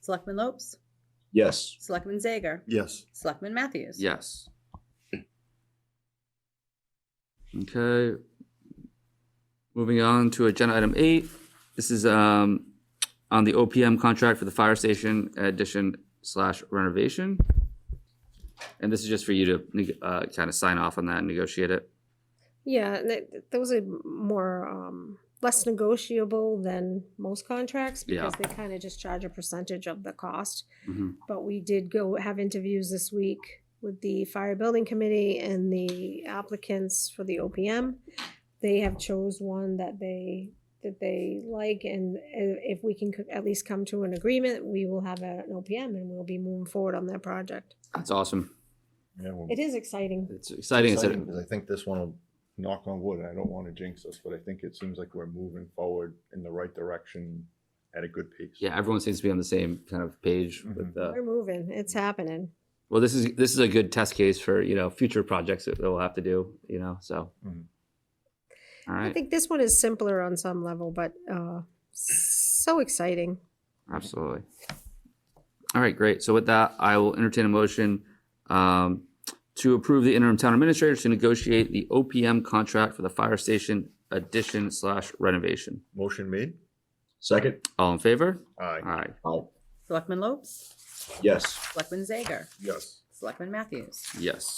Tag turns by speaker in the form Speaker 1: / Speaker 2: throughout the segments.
Speaker 1: Selectman Lopes,
Speaker 2: Yes.
Speaker 1: Selectman Zager,
Speaker 2: Yes.
Speaker 1: Selectman Matthews.
Speaker 3: Yes. Okay. Moving on to agenda item eight. This is um on the OPM contract for the fire station addition slash renovation. And this is just for you to neg- uh kind of sign off on that and negotiate it.
Speaker 4: Yeah, and that, those are more, um, less negotiable than most contracts
Speaker 3: Yeah.
Speaker 4: because they kind of just charge a percentage of the cost.
Speaker 3: Mhm.
Speaker 4: But we did go have interviews this week with the fire building committee and the applicants for the OPM. They have chose one that they, that they like and i- if we can co- at least come to an agreement, we will have a- an OPM and we'll be moving forward on that project.
Speaker 3: That's awesome.
Speaker 5: Yeah, well,
Speaker 4: It is exciting.
Speaker 3: It's exciting. It's a-
Speaker 5: because I think this one will knock on wood. and I don't want to jinx us, but I think it seems like we're moving forward in the right direction at a good pace.
Speaker 3: Yeah, everyone seems to be on the same kind of page with uh
Speaker 4: We're moving. It's happening.
Speaker 3: well, this is this is a good test case for, you know, future projects that we'll have to do, you know, so.
Speaker 5: Mhm.
Speaker 3: All
Speaker 4: I
Speaker 3: right.
Speaker 4: think this one is simpler on some level, but uh, so exciting.
Speaker 3: Absolutely. All right, great. So with that, I will entertain a motion um, to approve the interim town administrator to negotiate the OPM contract for the fire station addition slash renovation.
Speaker 5: Motion made.
Speaker 2: Second?
Speaker 3: All in favor?
Speaker 5: Aye.
Speaker 3: All right.
Speaker 2: Aye.
Speaker 1: Selectman Lopes,
Speaker 2: Yes.
Speaker 1: Selectman Zager,
Speaker 5: Yes.
Speaker 1: Selectman Matthews.
Speaker 3: Yes.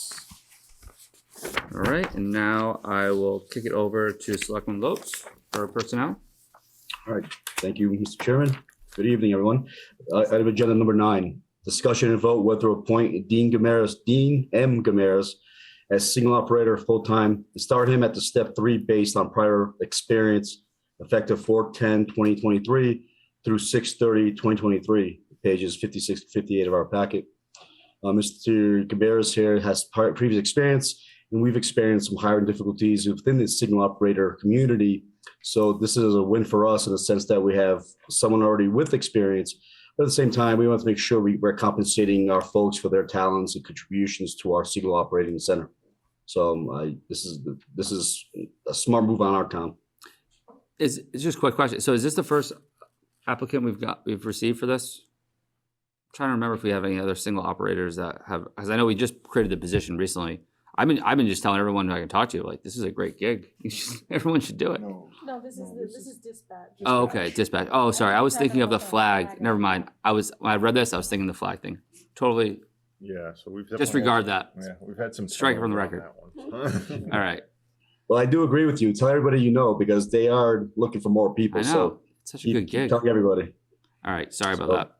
Speaker 3: All right, and now I will kick it over to Selectman Lopes for personnel.
Speaker 2: Thank you, Mr. Chairman. Good evening, everyone. Uh, Item agenda number nine, discussion and vote whether to appoint Dean Gamaris, Dean M. Gamaris as single operator full-time, and start him at the step three based on prior experience effective 2023 through 2023, pages fifty-six to fifty-eight of our packet. Uh, Mr. Gamaris here has prior- previous experience, and we've experienced some hiring difficulties within the signal operator community so this is a win for us in the sense that we have someone already with experience. But at the same time, we want to make sure we, we're compensating our folks for their talents and contributions to our Siegel Operating Center. So um, I, this is this is a smart move on our town.
Speaker 3: Is, it's just a quick question. So is this the first applicant we've got, we've received for this? I'm Trying to remember if we have any other single operators that have, because I know we just created the position recently. I've been, I've been just telling everyone I can talk to, like, this is a great gig. You should- Everyone should do it.
Speaker 5: No.
Speaker 6: No, this is,
Speaker 5: No,
Speaker 6: the-
Speaker 5: this
Speaker 6: this
Speaker 5: is-
Speaker 6: is dispatch.
Speaker 3: Oh, okay, dispatch. Oh, sorry. I was
Speaker 6: Talking
Speaker 3: thinking of the
Speaker 6: about the
Speaker 3: flag.
Speaker 6: flag.
Speaker 3: Never mind. I was, when I read this, I was thinking the flag thing. Totally
Speaker 5: Yeah, so we've.
Speaker 3: disregard that.
Speaker 5: Yeah, we've had some.
Speaker 3: Strike it from the
Speaker 5: turnover on that one.
Speaker 3: All right.
Speaker 2: Well, I do agree with you. Tell everybody you know because they are looking for more
Speaker 3: I
Speaker 2: people.
Speaker 3: know.
Speaker 2: So
Speaker 3: It's such a
Speaker 2: keep,
Speaker 3: good
Speaker 2: keep
Speaker 3: gig. All
Speaker 2: telling everybody.
Speaker 3: right. Sorry about
Speaker 2: So-
Speaker 3: that.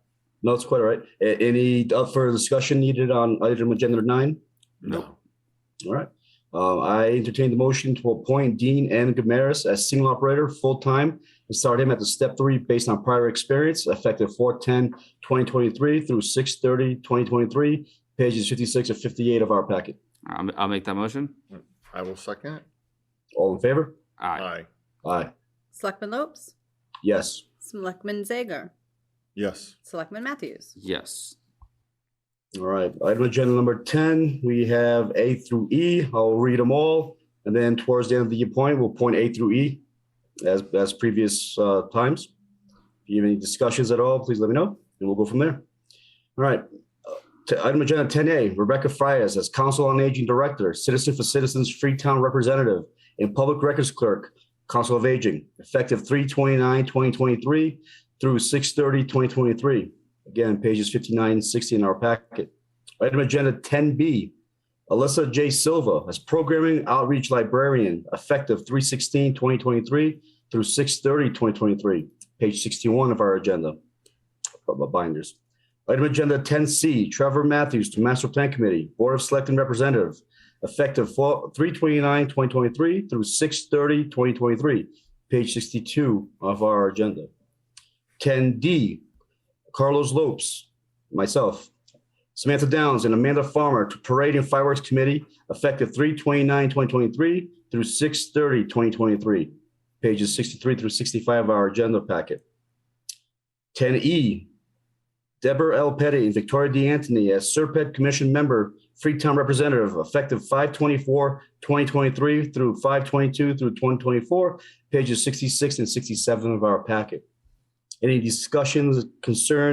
Speaker 2: No, it's quite all right. A- any uh, further discussion needed on item agenda nine?
Speaker 3: No.
Speaker 2: All right. Uh, I entertain the motion to appoint Dean N. Gamaris as single operator, full-time, and start him at the step three based on prior experience, effective 2023 through 2023, pages fifty-six and fifty-eight of our packet.
Speaker 3: I'll, I'll make that motion.
Speaker 5: I will second it.
Speaker 2: All in favor?
Speaker 3: All right.
Speaker 5: Aye.
Speaker 2: Aye.
Speaker 1: Selectman Lopes,
Speaker 2: Yes.
Speaker 1: Selectman Zager,
Speaker 5: Yes.
Speaker 1: Selectman Matthews.
Speaker 3: Yes.
Speaker 2: All right. Item agenda number ten, we have A through E. I'll read them all. And then towards the end of the point, we'll point A through E as, as previous uh, times. If you have any discussions at all, please let me know and we'll go from there. All right. Uh, to Item agenda ten A, Rebecca Frias as Council on Aging Director, Citizen for Citizens Freetown Representative, and Public Records Clerk, Council of Aging, effective 2023 through 2023. Again, pages 59 and 60 in our packet. Item agenda 10B, Alyssa J. Silva as Programming Outreach Librarian, effective 3/16/2023 through 6/30/2023, page 61 of our agenda of the binders. Item agenda 10C, Trevor Matthews to Master Plan Committee, Board of Selecting Representative, effective 3/29/2023 through 6/30/2023, page 62 of our agenda. 10D, Carlos Lopes, myself, Samantha Downs and Amanda Farmer to Parade and Fireworks Committee effective 3/29/2023 through 6/30/2023, pages 63 through 65 of our agenda packet. 10E, Deborah L. Petty and Victoria D. Anthony as Serpent Commission Member, Freetown Representative, effective 5/24/2023 through 5/22 through 2024, pages 66 and 67 of our packet. Any discussions, concerns?